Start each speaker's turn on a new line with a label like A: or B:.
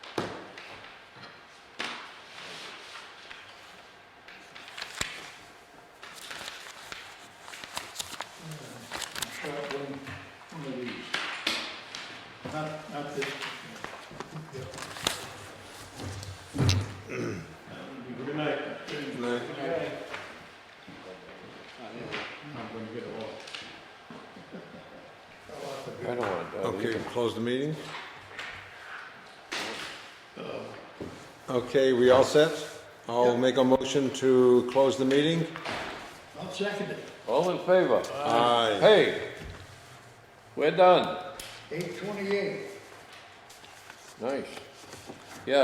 A: Not, not this. Good night. Good night. I'm gonna get a walk.
B: I don't want to.
C: Okay, Uh, close the meeting? Uh, Okay, we all set? I'll make a motion to close the meeting?
A: I'll second it.
B: All in favor?
C: Aye.
B: Hey, we're done.
A: Eight twenty-eight.
B: Nice.